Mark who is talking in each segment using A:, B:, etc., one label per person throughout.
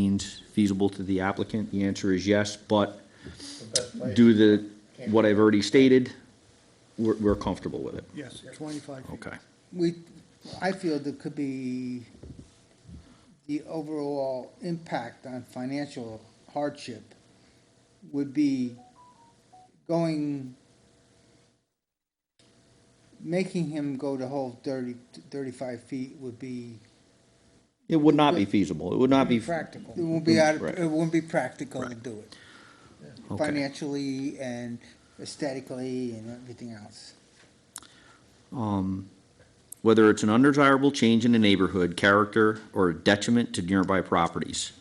A: means feasible to the applicant? The answer is yes, but due to what I've already stated, we're, we're comfortable with it.
B: Yes, twenty-five feet.
A: Okay.
C: We, I feel there could be the overall impact on financial hardship would be going, making him go the whole 30 35 feet would be,
A: It would not be feasible. It would not be.
C: it wouldn't be, out of-
A: Mm-hmm. Right.
C: it wouldn't be practical to do it.
A: Okay.
C: Financially and aesthetically and everything else.
A: whether it's an undesirable change in the neighborhood, character, or a detriment to nearby properties.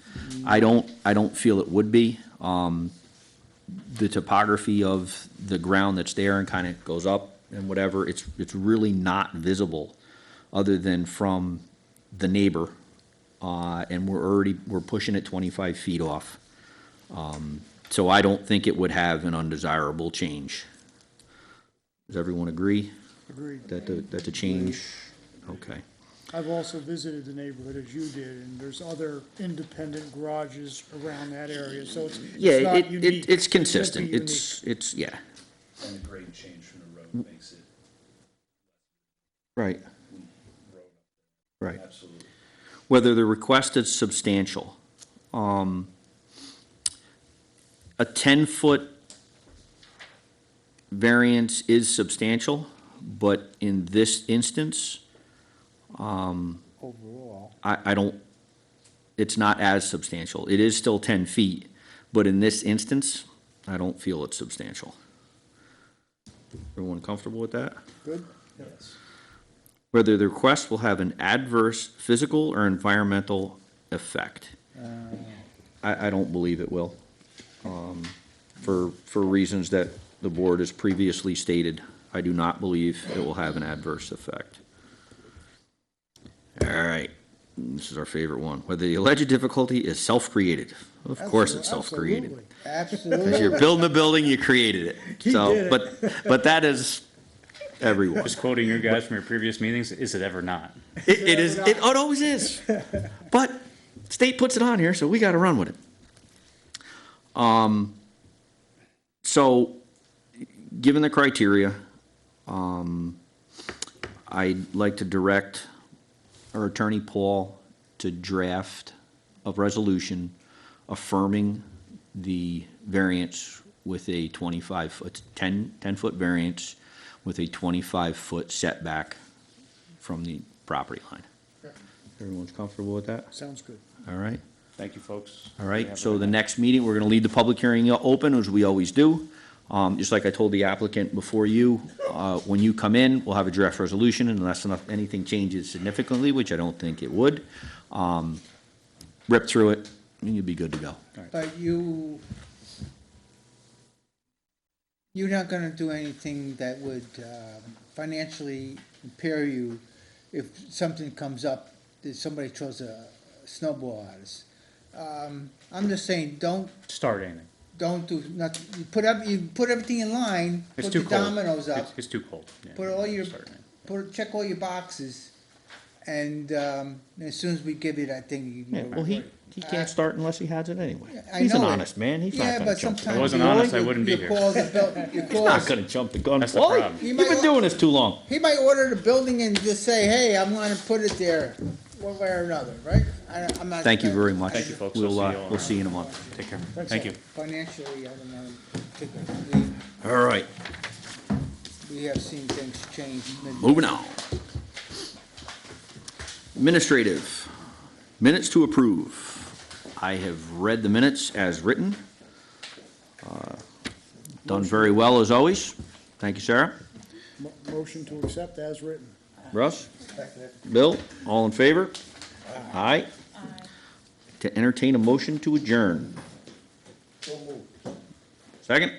A: I don't, I don't feel it would be. Um, the topography of the ground that's there and kind of goes up and whatever, it's, it's really not visible other than from the neighbor. Uh, and we're already, we're pushing it twenty-five feet off. Um, so I don't think it would have an undesirable change. Does everyone agree?
B: Agreed.
A: That the, that the change, okay.
B: I've also visited the neighborhood as you did, and there's other independent garages around that area, so it's,
A: Yeah,
B: it's not
A: it,
B: unique.
A: it, it's
B: can't be
A: consistent,
B: unique.
A: it's, it's, yeah, Mm.
D: And the grade change from the road makes it
A: right. Right,
D: absolutely.
A: whether the request is substantial. Um, a ten-foot variance is substantial, but in this instance, um,
C: Overall,
A: I, I don't, it's not as substantial. It is still ten feet, but in this instance, I don't feel it's substantial. Everyone comfortable with that?
C: good?
D: Yes.
A: whether the request will have an adverse physical or environmental effect.
B: Uh.
A: I, I don't believe it will, um, for, for reasons that the board has previously stated. I do not believe it will have an adverse effect. All right, this is our favorite one. Whether the alleged difficulty is self-created. Of course it's self-created.
B: Absolutely.
C: Absolutely.
A: Because you're building the building, you created it.
B: He did
A: So,
B: it.
A: but, but that is everyone.
E: Just quoting your guys from your previous meetings, is it ever not?
A: It, it is. It, oh, it always is. But state puts it on here, so we got to run with it. Um. So, given the criteria, um, I'd like to direct our attorney Paul to draft a resolution affirming the variance with a twenty-five foot, 10 10 foot variance with a twenty-five foot setback from the property line. Everyone's comfortable with that?
B: Sounds good.
A: All right,
E: Thank you, folks.
A: all right. So the next meeting, we're gonna leave the public hearing open, as we always do. Um, just like I told the applicant before you, uh, when you come in, we'll have a draft resolution unless enough, anything changes significantly, which I don't think it would. Um, rip through it and you'll be good to go.
C: But you, you're not gonna do anything that would um, financially impair you if something comes up, that somebody throws a snowball at us. Um, I'm just saying, don't,
E: Start anything.
C: don't do, not, you put up, you put everything in line,
E: It's
C: put
E: too
C: the
E: cold.
C: dominoes up,
E: It's- It's too cold. Yeah,
C: put all your,
E: start anything.
C: put, check all your boxes, and um, as soon as we give you that thing, you
A: Yeah,
C: can
A: well,
C: go.
A: he, he can't start unless he has it anyway.
C: I
A: He's an
C: know it.
A: honest man. He's
C: Yeah,
A: not gonna
C: but
A: jump. the-
C: sometimes.
E: I wasn't
C: you
E: honest, I
C: always-
E: wouldn't be
C: you
E: here.
C: call the buil- you call
A: Not gonna jump the gun.
E: That's the
A: Wally,
E: problem.
A: You've
C: You
A: been
C: might-
A: doing this too long.
C: He might order the building and just say, hey, I'm gonna put it there, one way or another, right? I, I'm not.
A: Thank you very much.
E: Thank you, folks. I'll
A: We'll, uh,
E: see you all
A: we'll
E: around.
A: see you in a month.
E: Take care. Thank you.
C: Financially, I don't know, typically,
A: All right,
C: we have seen things change.
A: moving on. Administrative, minutes to approve. I have read the minutes as written. Uh, Done very well, as always. Thank you, Sarah.
B: Mo- Motion to accept as written.
A: Russ? Bill? All in favor? Aye. To entertain a motion to adjourn. Second?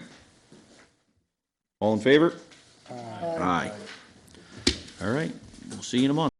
A: All in favor? Aye. All right, we'll see you in a month.